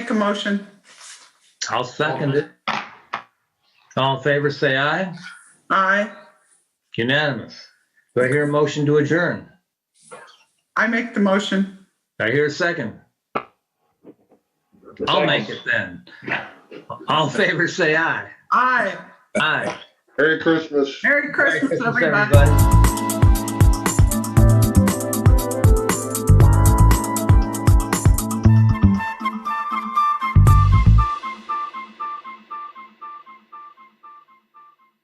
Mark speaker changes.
Speaker 1: a motion.
Speaker 2: I'll second it. All in favor, say aye.
Speaker 1: Aye.
Speaker 2: Unanimous. Do I hear a motion to adjourn?
Speaker 1: I make the motion.
Speaker 2: Do I hear a second? I'll make it then. All in favor, say aye.
Speaker 1: Aye.
Speaker 2: Aye.
Speaker 3: Merry Christmas.
Speaker 1: Merry Christmas,
Speaker 2: Merry
Speaker 1: everybody.
Speaker 2: everybody.